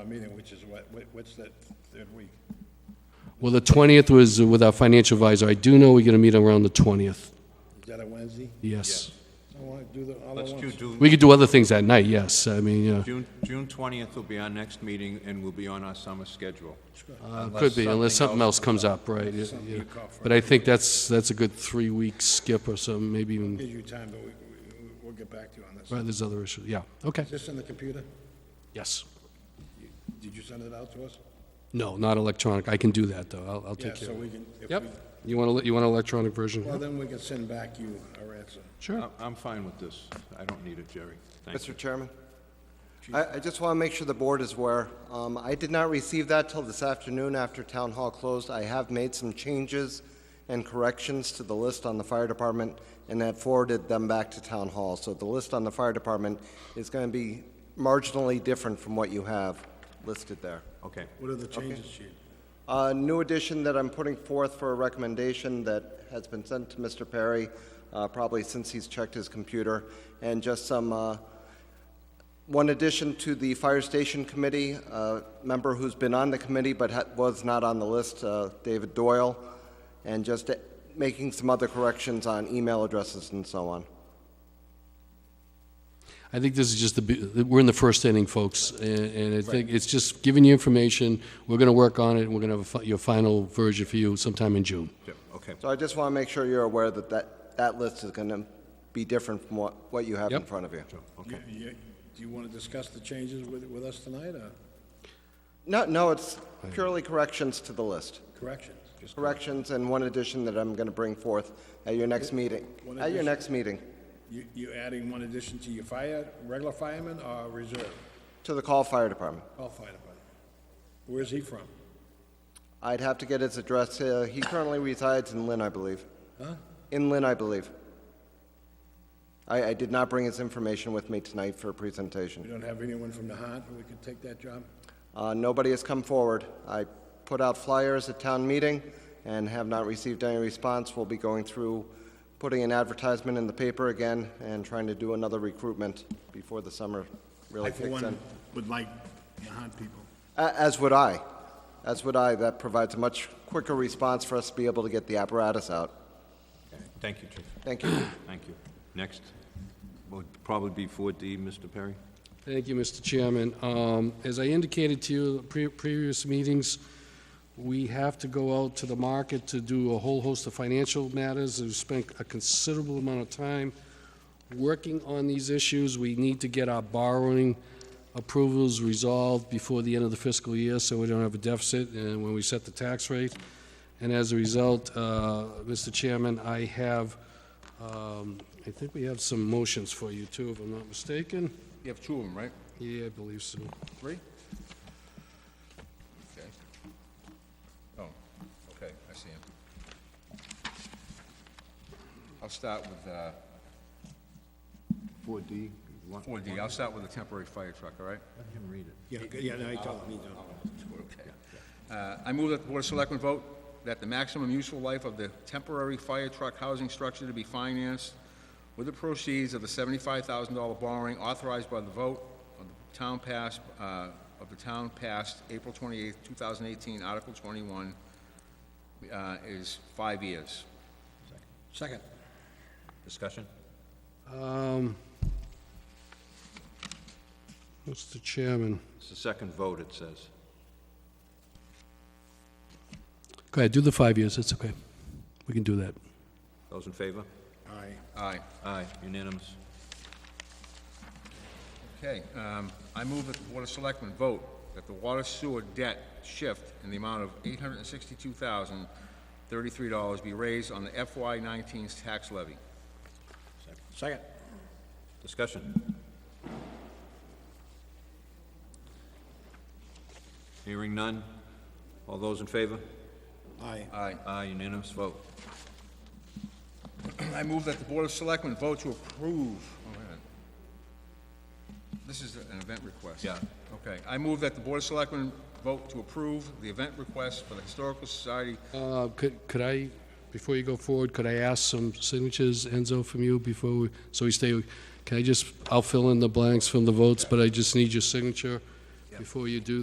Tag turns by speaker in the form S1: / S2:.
S1: uh, meeting, which is what, what- what's that third week?
S2: Well, the 20th was with our financial advisor. I do know we're going to meet around the 20th.
S1: Is that a Wednesday?
S2: Yes.
S1: I want to do the, all at
S3: Let's do
S1: once.
S3: June,
S2: We could do other things that night, yes. I mean, you know,
S3: June, June 20th will be our next meeting, and we'll be on our summer schedule.
S2: uh, could be, unless something else comes up, right? yeah, yeah. But I think that's, that's a good three-week skip or something, maybe even,
S1: Give you time, but we, we- we'll get back to you on this.
S2: Mm. right,
S1: Is
S2: there's other issues, yeah, okay,
S1: this in the computer?
S2: yes.
S1: Did you send it out to us?
S2: No, not electronic, I can do that, though, I'll, I'll
S1: Yeah,
S2: take care
S1: so
S2: of it.
S1: we can, if
S2: Yep,
S1: we,
S2: you want to, you want an electronic
S1: well,
S2: version?
S1: then um, we can send back you our answer.
S2: Sure.
S3: I- I'm fine with this. I don't need it, Jerry. Thank you.
S4: Mr. Chairman, I, I just want to make sure the board is aware. Um, I did not receive that till this afternoon after town hall closed. I have made some changes and corrections to the list on the fire department and have forwarded them back to town hall. So the list on the fire department is going to be marginally different from what you have listed there.
S3: Okay.
S1: What are the changes, chief?
S4: A new addition that I'm putting forth for a recommendation that has been sent to Mr. Perry, uh, probably since he's checked his computer, and just some, uh, one addition to the Fire Station Committee, a member who's been on the committee but ha- was not on the list, uh, David Doyle, and just uh, making some other corrections on email addresses and so on.
S2: I think this is just the, be- we're in the first inning, folks, and and I think it's just giving you information, we're going to work on it, and we're going to have a fi- your final version for you sometime in June.
S3: Yep, Okay.
S4: So I just want to make sure you're aware that that, that list is going to be different from what, what you have in
S2: Yep.
S4: front of you.
S1: You- you- Do you want to discuss the changes with, with us tonight, or
S4: No, no, it's purely corrections to the list.
S1: corrections? Just
S4: corrections and one addition that I'm going to bring forth at your next meeting.
S1: One
S4: At your
S1: addition?
S4: next meeting,
S1: You, you adding one addition to your fire, regular fireman or reserve?
S4: to the call fire department.
S1: All fire department. Where's he from?
S4: I'd have to get his address. uh, He currently resides in Lynn, I believe.
S1: Huh?
S4: In Lynn, I believe. I, I did not bring his information with me tonight for a presentation.
S1: We don't have anyone from the Nahant who could take that job?
S4: Uh, Nobody has come forward. I put out flyers at town meeting and have not received any response. We'll be going through, putting an advertisement in the paper again and trying to do another recruitment before the summer really
S1: I, for
S4: kicks
S1: one,
S4: in.
S1: would like Nahant people.
S4: A- As would I. As would I. That provides a much quicker response for us to be able to get the apparatus out.
S3: Okay. Thank you, Chief.
S4: Thank you.
S3: Thank you. Next would probably be 4D, Mr. Perry.
S2: Thank you, Mr. Chairman. Um, As I indicated to you at pre- previous meetings, we have to go out to the market to do a whole host of financial matters. We've spent a considerable amount of time working on these issues. We need to get our borrowing approvals resolved before the end of the fiscal year, so we don't have a deficit and when we set the tax rate. And as a result, uh, Mr. Chairman, I have, um, I think we have some motions for you, too, if I'm not mistaken.
S5: You have two of them, right?
S2: Yeah, I believe so.
S5: Three? Okay. Oh, okay, I see him. I'll start with, uh... Four D? Four D, I'll start with the temporary fire truck, all right? Let him read it.
S1: Yeah, g- yeah, no, I told him, he don't.
S5: Okay. Uh, I move that the Board of Selectmen vote that the maximum useful life of the temporary fire truck housing structure to be financed with the proceeds of the seventy-five thousand dollar borrowing authorized by the vote of the town passed, uh, of the town passed April twenty-eighth, two thousand eighteen, Article twenty-one, uh, is five years.
S1: Second.
S3: Discussion?
S2: Um, Mr. Chairman,
S3: It's the second vote, it says.
S2: go ahead, do the five years, that's okay. We can do that.
S3: Those in favor?
S1: Aye.
S5: Aye.
S3: Aye, unanimous.
S5: Okay, um, I move that the Board of Selectmen vote that the water sewer debt shift in the amount of eight hundred and sixty-two thousand, thirty-three dollars be raised on the FY 19s tax levy.
S1: Second.
S3: Discussion? Hearing none. All those in favor?
S1: Aye.
S5: Aye.
S3: Aye, unanimous vote.
S5: I move that the Board of Selectmen vote to approve, oh, wait a minute. This is an event request.
S3: Yeah.
S5: Okay, I move that the Board of Selectmen vote to approve the event request for the Historical Society
S2: Uh, Could could I, before you go forward, could I ask some signatures, Enzo, from you before, we so we stay, can I just, I'll fill in the blanks from the votes, but I just need your signature before you do